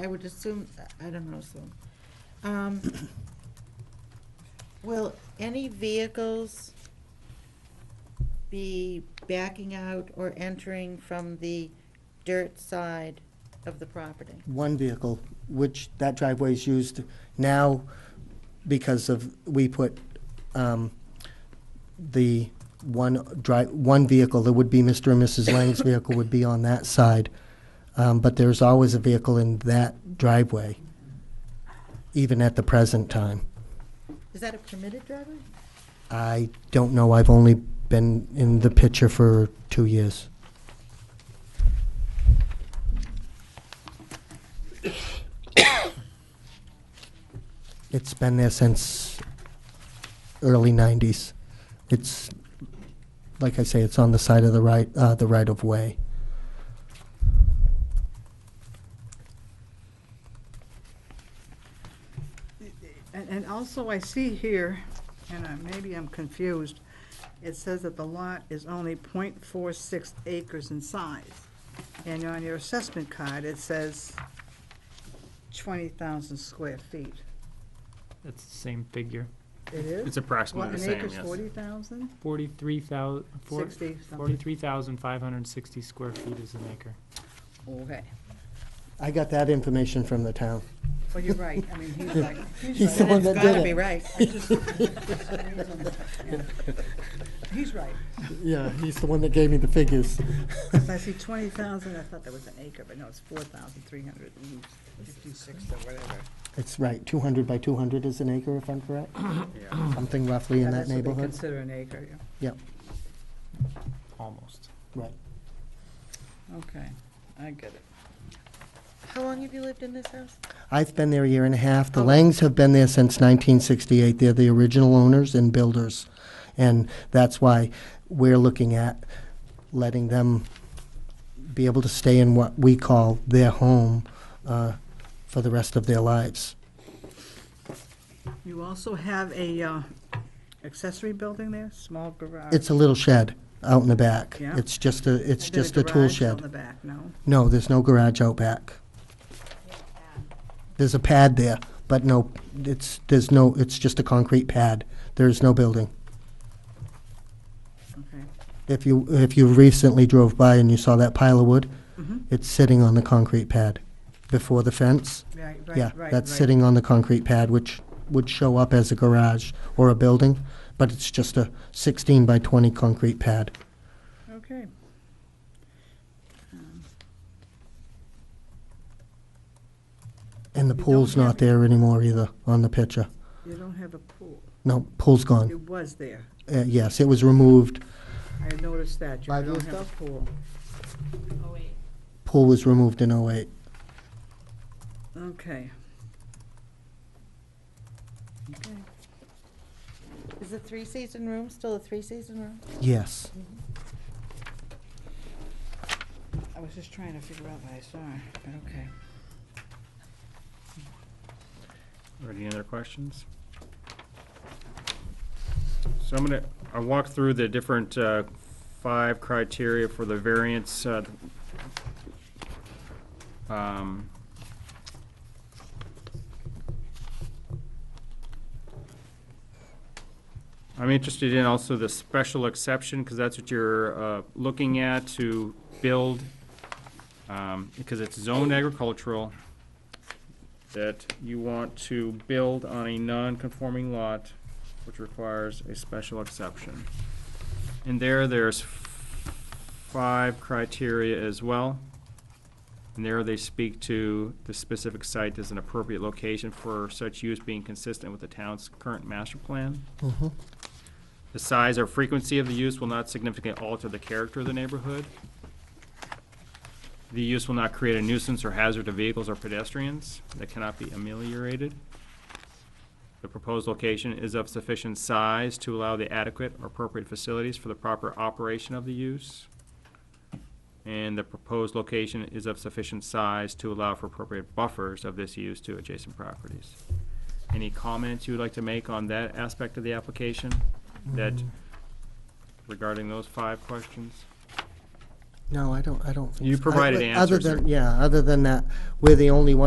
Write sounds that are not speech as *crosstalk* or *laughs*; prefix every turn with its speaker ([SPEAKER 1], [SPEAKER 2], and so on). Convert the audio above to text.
[SPEAKER 1] I would assume, I don't know, so. Um, Will any vehicles be backing out or entering from the dirt side of the property?
[SPEAKER 2] one vehicle, which that driveway is used now because of, we put um, the one dri, one vehicle that would be Mr. and Mrs. Lang's vehicle would be on that side. Um, But there's always a vehicle in that driveway, even at the present time.
[SPEAKER 1] Is that a permitted driveway?
[SPEAKER 2] I don't know, I've only been in the picture for two years. *coughs* It's been there since early nineties. It's, like I say, it's on the side of the right, uh, the right of way.
[SPEAKER 3] And, and also I see here, and I- maybe I'm confused, it says that the lot is only .46 acres in size. And on your assessment card, it says twenty thousand square feet.
[SPEAKER 4] That's the same figure.
[SPEAKER 3] It is?
[SPEAKER 5] It's approximately
[SPEAKER 3] What,
[SPEAKER 5] the
[SPEAKER 3] an
[SPEAKER 5] same,
[SPEAKER 3] acre's
[SPEAKER 5] yes.
[SPEAKER 3] forty thousand?
[SPEAKER 4] Forty-three thousand,
[SPEAKER 3] Sixty something?
[SPEAKER 4] forty-three thousand five hundred and sixty square feet is an acre.
[SPEAKER 3] Okay.
[SPEAKER 2] I got that information from the town.
[SPEAKER 3] Well, you're right. I mean,
[SPEAKER 2] *laughs*
[SPEAKER 3] he's like,
[SPEAKER 2] He's
[SPEAKER 3] he's
[SPEAKER 2] the
[SPEAKER 3] right.
[SPEAKER 2] one that
[SPEAKER 1] Gotta be
[SPEAKER 2] did it. *laughs*
[SPEAKER 1] right.
[SPEAKER 3] I just- *laughs* He's right.
[SPEAKER 2] Yeah, he's the one that gave me the figures.
[SPEAKER 3] So I see
[SPEAKER 2] *laughs*
[SPEAKER 3] twenty thousand, I thought that was an acre, but no, it's four thousand three hundred and fifty-six or whatever.
[SPEAKER 2] It's right, two hundred by two hundred is an acre, if I'm correct?
[SPEAKER 3] *clears throat*
[SPEAKER 5] Yeah.
[SPEAKER 2] something roughly in that
[SPEAKER 3] That's what they
[SPEAKER 2] neighborhood?
[SPEAKER 3] Consider an acre, yeah.
[SPEAKER 4] Almost.
[SPEAKER 2] Right.
[SPEAKER 3] Okay, I get it.
[SPEAKER 1] How long have you lived in this house?
[SPEAKER 2] I've been there a year and a half.
[SPEAKER 3] Oh.
[SPEAKER 2] The Langs have been there since 1968. They're the original owners and builders. And that's why we're looking at letting them be able to stay in what we call their home uh, for the rest of their lives.
[SPEAKER 3] You also have a uh, accessory building there, small garage?
[SPEAKER 2] It's a little shed out in the back.
[SPEAKER 3] Yeah.
[SPEAKER 2] It's just a, it's
[SPEAKER 3] And then
[SPEAKER 2] just a tool
[SPEAKER 3] garage on the
[SPEAKER 2] shed.
[SPEAKER 3] back, no?
[SPEAKER 2] No, there's no garage out back. There's a pad there, but no, it's, there's no, it's just a concrete pad. There is no building.
[SPEAKER 3] Okay.
[SPEAKER 2] If you, if you recently drove by and you saw that pile of wood,
[SPEAKER 3] Mhm.
[SPEAKER 2] it's sitting on the concrete pad before the fence.
[SPEAKER 3] Right, right,
[SPEAKER 2] Yeah,
[SPEAKER 3] right,
[SPEAKER 2] that's
[SPEAKER 3] right.
[SPEAKER 2] sitting on the concrete pad, which would show up as a garage or a building, but it's just a sixteen by twenty concrete pad.
[SPEAKER 3] Okay. Um,
[SPEAKER 2] And the
[SPEAKER 3] You don't
[SPEAKER 2] pool's
[SPEAKER 3] have-
[SPEAKER 2] not there anymore either on the picture.
[SPEAKER 3] You don't have a pool.
[SPEAKER 2] No, pool's gone.
[SPEAKER 3] It was there.
[SPEAKER 2] Uh, yes, it was removed.
[SPEAKER 3] I noticed that. You
[SPEAKER 2] Five years
[SPEAKER 3] don't have a pool.
[SPEAKER 2] Pool was removed in oh eight.
[SPEAKER 3] Okay. Okay.
[SPEAKER 1] Is the three-season room still a three-season room?
[SPEAKER 2] Yes.
[SPEAKER 3] I was just trying to figure out what I saw, but okay.
[SPEAKER 5] Or any other questions? So I'm gonna, I walk through the different uh, five criteria for the variance. uh, um, I'm interested in also the special exception, because that's what you're uh, looking at to build, um, because it's zoned agricultural that you want to build on a non-conforming lot, which requires a special exception. And there, there's five criteria as well. And there, they speak to the specific site as an appropriate location for such use being consistent with the town's current master plan.
[SPEAKER 2] Mhm.
[SPEAKER 5] The size or frequency of the use will not significantly alter the character of the neighborhood. The use will not create a nuisance or hazard to vehicles or pedestrians that cannot be ameliorated. The proposed location is of sufficient size to allow the adequate or appropriate facilities for the proper operation of the use. And the proposed location is of sufficient size to allow for appropriate buffers of this use to adjacent properties. Any comments you would like to make on that aspect of the application that
[SPEAKER 2] Mm. Mm-hmm.
[SPEAKER 5] regarding those five questions?
[SPEAKER 2] No, I don't, I don't. think
[SPEAKER 5] You
[SPEAKER 2] so. I-
[SPEAKER 5] provided
[SPEAKER 2] Other
[SPEAKER 5] answers there.
[SPEAKER 2] than, yeah, other than that, we're the only one.